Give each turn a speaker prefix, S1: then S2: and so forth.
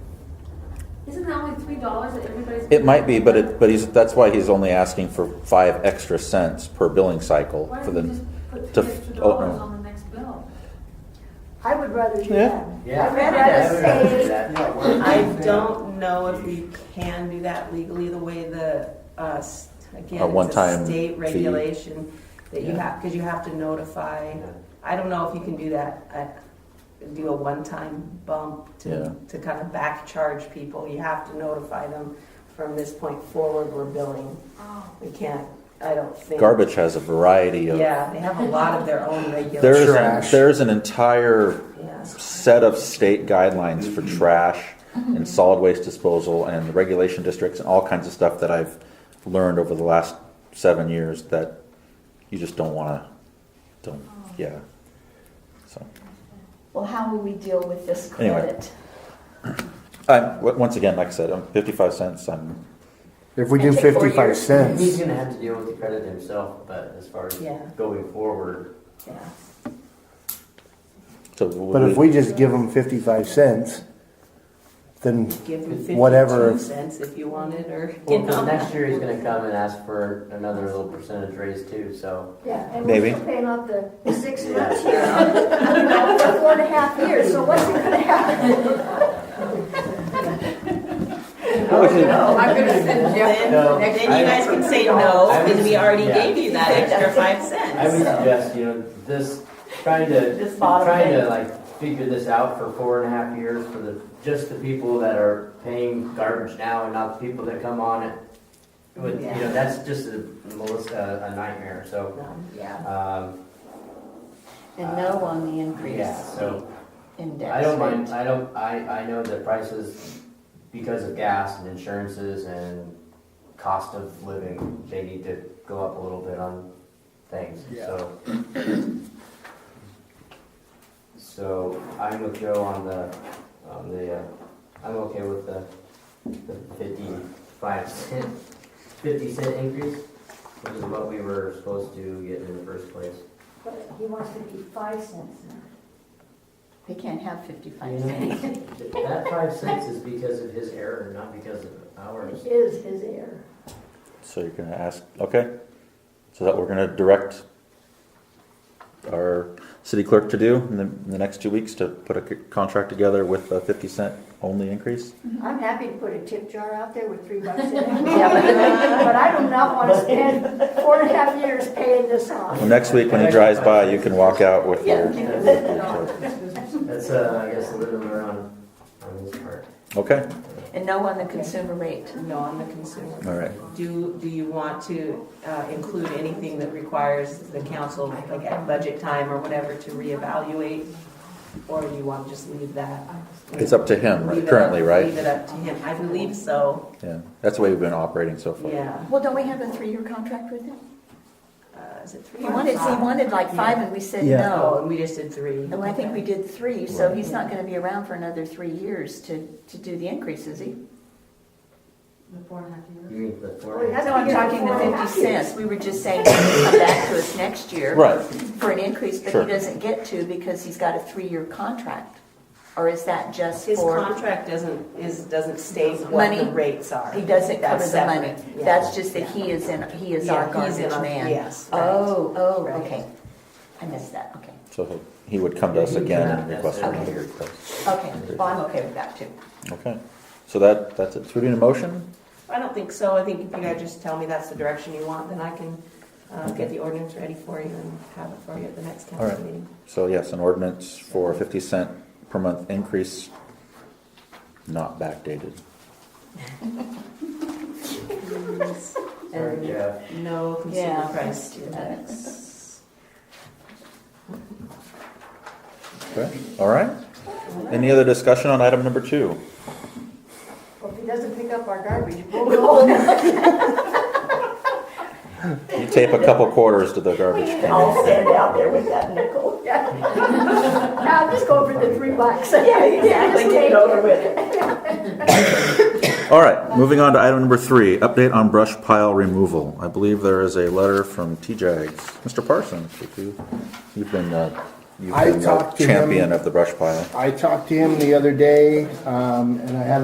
S1: Isn't that only three dollars that everybody's?
S2: It might be, but it, but he's, that's why he's only asking for five extra cents per billing cycle
S1: Why
S2: for
S1: don't we
S2: the,
S1: just put
S2: to
S1: three
S2: f-
S1: extra
S2: oh,
S1: dollars
S2: no.
S1: on the next bill?
S3: I would rather do
S2: Yeah.
S3: that.
S4: Yeah.
S3: I'd rather say,
S5: I don't know if we can do that legally, the way the, uh, s-
S2: A
S5: again, it's
S2: one-time
S5: a state
S2: fee.
S5: regulation that you
S2: Yeah.
S5: have, because you have to notify. I don't know if you can do that, uh, do a one-time bump
S2: Yeah.
S5: to, to kind of back charge people. You have to notify them from this point forward, we're billing.
S1: Oh,
S5: We can't, I don't think.
S2: garbage has a variety of.
S5: Yeah, they have a lot of their own
S2: There
S5: regulations.
S2: is, an-
S4: Trash.
S2: there is an entire
S5: Yeah.
S2: set of state guidelines for trash
S1: Mm-hmm.
S2: and solid waste disposal and the regulation districts and all kinds of stuff that I've learned over the last seven years that you just don't wanna, don't,
S1: Oh.
S2: yeah. So,
S3: well, how will we deal with this
S2: Anyway.
S3: credit?
S2: I, once again, like I said, I'm fifty-five cents, I'm,
S4: If we do
S3: Take four
S4: fifty-five
S3: years.
S6: He's
S4: cents,
S6: gonna have to deal with the credit himself, but as far as
S5: Yeah.
S6: going forward,
S5: Yeah.
S2: so.
S4: but if we just give them fifty-five cents, then
S5: Give them
S4: Whatever.
S5: fifty-two cents if you wanted, or, you
S6: well, 'cause
S5: know.
S6: next year he's gonna come and ask for another little percentage raise too, so.
S3: Yeah, and
S2: Maybe.
S3: we're still paying off the the six
S6: Yeah.
S3: months here, you know, for four and a half years, so what's it gonna happen?
S5: Oh,
S7: Oh,
S5: I'm gonna send Jeff.
S6: No,
S5: Then you
S6: I-
S5: guys can say no,
S6: I would-
S5: because we already
S6: yeah.
S5: gave you that extra five
S6: I would
S5: cents.
S6: suggest, you know, this, trying to,
S5: This bottom
S6: trying to
S5: thing.
S6: like figure this out for four and a half years for the, just the people that are paying garbage now and not the people that come on it. Would, you
S5: Yeah.
S6: know, that's just a, Melissa, a nightmare, so,
S5: Um, Yeah.
S6: um,
S7: And no on the increase
S6: yeah, so.
S7: index.
S6: I don't mind,
S7: rate.
S6: I don't, I, I know that prices, because of gas and insurances and cost of living, they need to go up a little bit on things, so. So I'm with Joe on the, on the, uh, I'm okay with the the fifty-five cent, fifty cent increase, which is what we were supposed to get in the first place.
S3: But He wants to be five cents now.
S7: They can't have fifty-five cents.
S6: That five cents is because of his error, not because of ours.
S3: It is his error.
S2: So you're gonna ask, okay, so that we're gonna direct our city clerk to do in the, in the next two weeks to put a c- contract together with a fifty cent only increase?
S3: I'm happy to put a tip jar out there with three bucks in it. But I do not want to spend four and a half years paying this off.
S2: Well, next week when he drives by, you can walk out with your.
S6: That's, uh, I guess, a little bit on, on his part.
S2: Okay,
S7: And no on the consumer rate.
S5: No on the consumer.
S2: all right.
S5: Do, do you want to uh, include anything that requires the council, like at budget time or whatever, to reevaluate? Or do you want to just leave that?
S2: It's up to him
S5: Leave it up-
S2: currently,
S5: Leave
S2: right?
S5: it up to him. I believe so,
S2: Yeah, that's the way we've been operating so far.
S5: yeah.
S7: Well, don't we have a three-year contract with him?
S5: Uh, Is it three
S7: He
S5: or
S7: wanted, he
S5: five?
S7: wanted like five and we said
S5: Oh,
S7: no.
S5: and we just did three.
S7: And I think we did three, so he's not gonna be around for another three years to, to do the increase, is he?
S1: the four and a half
S6: You
S1: years.
S6: mean the
S3: Well, he
S6: four?
S3: has
S7: No,
S3: to
S7: I'm
S3: get
S7: talking
S3: four
S7: the
S3: and a half
S7: fifty
S3: years.
S7: cents. We were just saying he's gonna come back to us next year.
S2: Right,
S7: For an increase, but
S2: Sure.
S7: he doesn't get to because he's got a three-year contract. Or is that just
S5: His
S7: for,
S5: contract doesn't, is, doesn't state what the
S7: Money.
S5: rates are.
S7: he doesn't cover
S5: That's
S7: the money?
S5: separate. Yeah.
S7: That's just that he is in, he is our
S5: Yeah, he's in
S7: garbage
S5: our-
S7: man?
S5: Yes. right.
S7: Oh, oh,
S5: Right.
S7: okay. I missed that, okay.
S2: so he'll- he would come to us again and request it.
S7: Okay. Okay, well, I'm okay with that too.
S2: Okay, so that, that's it. So we need a motion?
S5: I don't think so. I think if you guys just tell me that's the direction you want, then I can uh, get the ordinance ready for you and have it for you at the next
S2: All right.
S5: council meeting.
S2: So yes, an ordinance for a fifty cent per month increase, not backdated.
S6: Sorry, Jeff.
S5: No
S7: Yeah.
S5: consumer price
S7: That's-
S5: index.
S2: Okay, all right. Any other discussion on item number two?
S3: Well, if he doesn't pick up our garbage, we'll go.
S2: You tape a couple quarters to the garbage can.
S3: I'll stand out there with that nickel. Now, just go for the three bucks. Yeah, exactly, get over with it.
S2: All right, moving on to item number three, update on brush pile removal. I believe there is a letter from T-Jags. Mr. Parsons, if you, you've been, uh, you've
S8: I
S2: been the
S8: talked to him.
S2: champion of the brush pile.
S8: I talked to him the other day, um, and I had